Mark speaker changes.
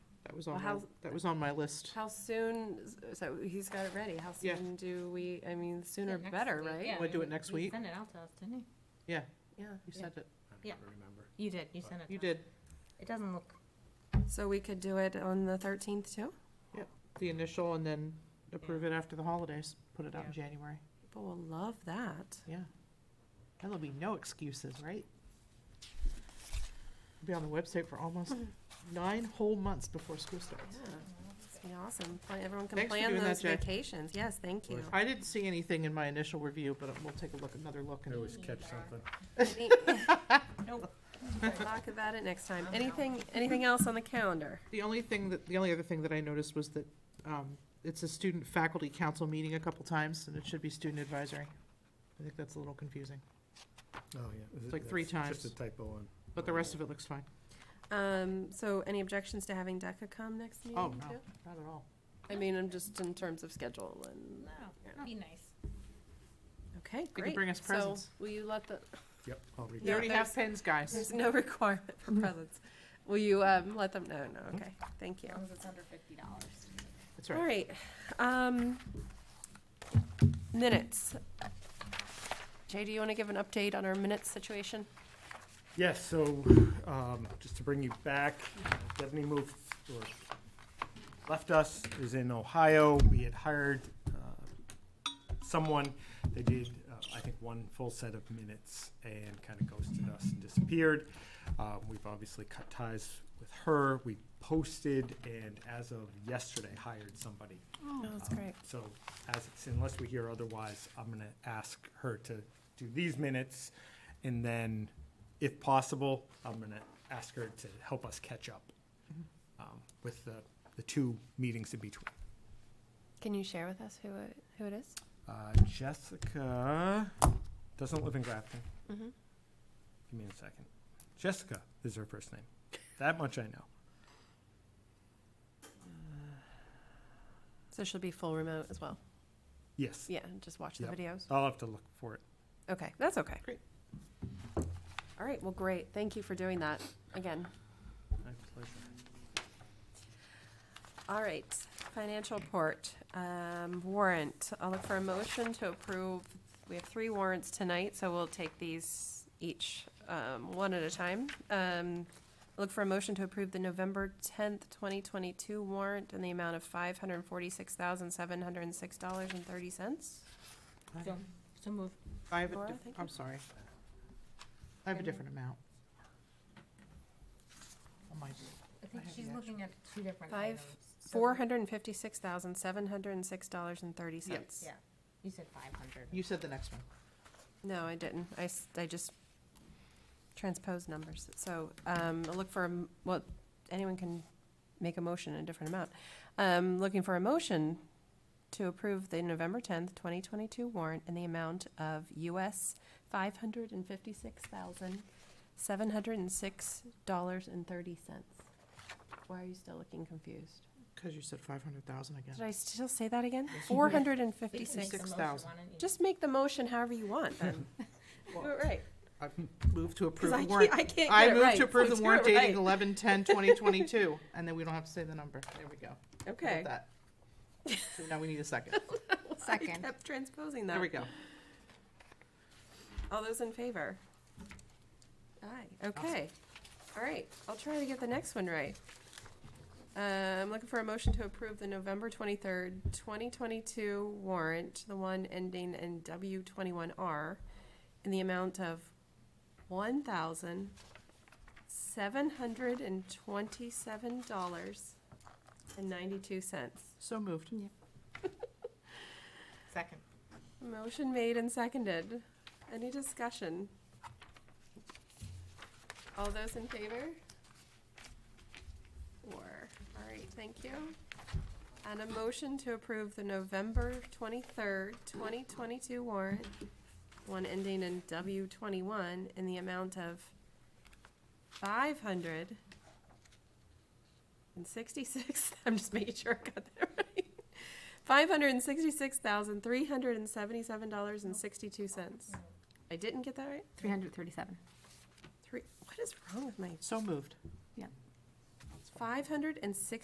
Speaker 1: That was
Speaker 2: Well,
Speaker 1: on, my-
Speaker 2: how's-
Speaker 1: that was on my list.
Speaker 2: How soon, so he's got it ready, how
Speaker 1: Yeah.
Speaker 2: soon do we, I mean, sooner
Speaker 3: Next
Speaker 2: better,
Speaker 3: week,
Speaker 2: right?
Speaker 3: yeah,
Speaker 1: Wanna do
Speaker 3: you-
Speaker 1: it next
Speaker 3: you
Speaker 1: week?
Speaker 3: sent it out to us, didn't you?
Speaker 1: Yeah,
Speaker 2: Yeah,
Speaker 1: you sent it.
Speaker 3: I Yeah.
Speaker 4: remember.
Speaker 3: You did, you
Speaker 4: Uh,
Speaker 3: sent it.
Speaker 1: You
Speaker 3: to us.
Speaker 1: did.
Speaker 3: It doesn't look,
Speaker 2: so we could do it on the thirteenth too?
Speaker 1: The initial and then approve it after the holidays. Put it out in January.
Speaker 2: People will love that.
Speaker 1: Yeah. And there'll be no excuses, right? Be on the website for almost nine whole months before school starts.
Speaker 2: Yeah, it's gonna be awesome. Plan- Everyone can
Speaker 1: Thanks for
Speaker 2: plan
Speaker 1: doing that,
Speaker 2: those
Speaker 1: Jay.
Speaker 2: vacations. Yes, thank you.
Speaker 1: I didn't see anything in my initial review, but we'll take a look, another look.
Speaker 4: I
Speaker 1: and-
Speaker 4: always catch something.
Speaker 2: Any-
Speaker 3: nope.
Speaker 2: Talk about it next time. Anything, anything else on the calendar?
Speaker 1: The only thing that, the only other thing that I noticed was that um, it's a student faculty council meeting a couple times, and it should be student advisory. I think that's a little confusing,
Speaker 4: Oh, yeah. Is it-
Speaker 1: like three
Speaker 4: that's Just
Speaker 1: times.
Speaker 4: a typo on.
Speaker 1: but the rest of it looks fine.
Speaker 2: Um, so any objections to having DECA come next meeting
Speaker 1: Oh,
Speaker 2: too?
Speaker 1: no, not at all.
Speaker 2: I mean, I'm just in terms of schedule and,
Speaker 3: No, that'd be nice.
Speaker 2: okay,
Speaker 1: could
Speaker 2: great.
Speaker 1: bring us
Speaker 2: So
Speaker 1: presents.
Speaker 2: will you let the,
Speaker 4: Yep, I'll read
Speaker 1: You
Speaker 2: Yeah,
Speaker 4: it.
Speaker 1: already have
Speaker 2: there's-
Speaker 1: pens, guys.
Speaker 2: There's no requirement for presents. Will you um, let them know? No, okay, thank you.
Speaker 3: As long as it's under fifty dollars.
Speaker 1: That's
Speaker 2: All
Speaker 1: right.
Speaker 2: right. um, Minutes. Jay, do you want to give an update on our minutes situation?
Speaker 4: Yes, so, um, just to bring you back, Stephanie moved, or left us, is in Ohio. We had hired, uh, someone. They did, uh, I think, one full set of minutes and kind of ghosted us and disappeared. Um, we've obviously cut ties with her. We posted and as of yesterday hired somebody
Speaker 2: Oh, that's
Speaker 4: Um, So as, it's- unless we hear otherwise, I'm going to ask her to do these minutes. And then, if possible, I'm going to ask her to help us catch up
Speaker 2: Mm-hmm.
Speaker 4: um, with the, the two meetings in between.
Speaker 2: Can you share with us who it, who it is?
Speaker 4: Uh, Jessica doesn't live in Grafton.
Speaker 2: Mhm.
Speaker 4: Give me a second. Jessica is her first name. That much I know.
Speaker 2: So she'll be full remote as well?
Speaker 4: Yes,
Speaker 2: Yeah, and just watch the
Speaker 4: Yep.
Speaker 2: videos?
Speaker 4: I'll have to look for it.
Speaker 2: Okay, that's okay.
Speaker 1: Great.
Speaker 2: All right, well, great. Thank you for doing that again.
Speaker 4: My pleasure.
Speaker 2: All right, financial report, um, warrant. I'll look for a motion to approve. We have three warrants tonight, so we'll take these each, um, one at a time. Um, look for a motion to approve the November tenth, twenty twenty-two warrant in the amount of five hundred and forty-six thousand, seven hundred and six dollars and thirty cents.
Speaker 1: I-
Speaker 3: So, so moved.
Speaker 1: I have a
Speaker 2: Laura,
Speaker 1: diff-
Speaker 2: thank
Speaker 1: I'm
Speaker 2: you.
Speaker 1: sorry. I have a different amount. On my-
Speaker 3: I think
Speaker 1: I have
Speaker 3: she's
Speaker 1: the
Speaker 3: looking at two different
Speaker 2: Five,
Speaker 3: items. So
Speaker 2: Four
Speaker 3: we-
Speaker 2: hundred and fifty-six thousand, seven hundred and six dollars and thirty cents.
Speaker 3: Yeah, you said five hundred.
Speaker 1: You said the next one.
Speaker 2: No, I didn't. I, s- I just transposed numbers. So, um, I look for, a m- well, anyone can make a motion in a different amount. Um, looking for a motion to approve the November tenth, twenty twenty-two warrant in the amount of US five hundred and fifty-six thousand, seven hundred and six dollars and thirty cents. Why are you still looking confused?
Speaker 1: Because you said five hundred thousand again.
Speaker 2: Did I still say that again? Four hundred and fifty-six.
Speaker 1: Six thousand.
Speaker 2: Just make the motion however you want then. Do it right.
Speaker 1: I Move to approve
Speaker 2: Because
Speaker 1: the
Speaker 2: I can't,
Speaker 1: warrant.
Speaker 2: I can't get
Speaker 1: I
Speaker 2: it
Speaker 1: move
Speaker 2: right,
Speaker 1: to
Speaker 2: so
Speaker 1: approve the
Speaker 2: do
Speaker 1: warrant
Speaker 2: it
Speaker 1: dating
Speaker 2: right.
Speaker 1: eleven ten twenty twenty-two, and then we don't have to say the number. There we go. How about
Speaker 2: Okay.
Speaker 1: that? So Now we need a second.
Speaker 2: I
Speaker 3: Second.
Speaker 2: kept transposing
Speaker 1: There we
Speaker 2: that.
Speaker 1: go.
Speaker 2: All those in favor? Aye, okay. All right, I'll try to get the next one right. Uh, I'm looking for a motion to approve the November twenty-third, twenty twenty-two warrant, the one ending in W twenty-one R, in the amount of one thousand seven hundred and twenty-seven dollars and ninety-two cents.
Speaker 1: So moved.
Speaker 3: Second.
Speaker 2: Motion made and seconded. Any discussion? All those in favor? Four. All right, thank you. And a motion to approve the November twenty-third, twenty twenty-two warrant, one ending in W twenty-one, in the amount of five hundred and sixty-six, I'm just making sure I got that right. Five hundred and sixty-six thousand, three hundred and seventy-seven dollars and sixty-two cents. I didn't get that right?
Speaker 3: Three hundred thirty-seven.
Speaker 2: Three, what is wrong with my,
Speaker 1: So moved.
Speaker 2: five hundred and sixty?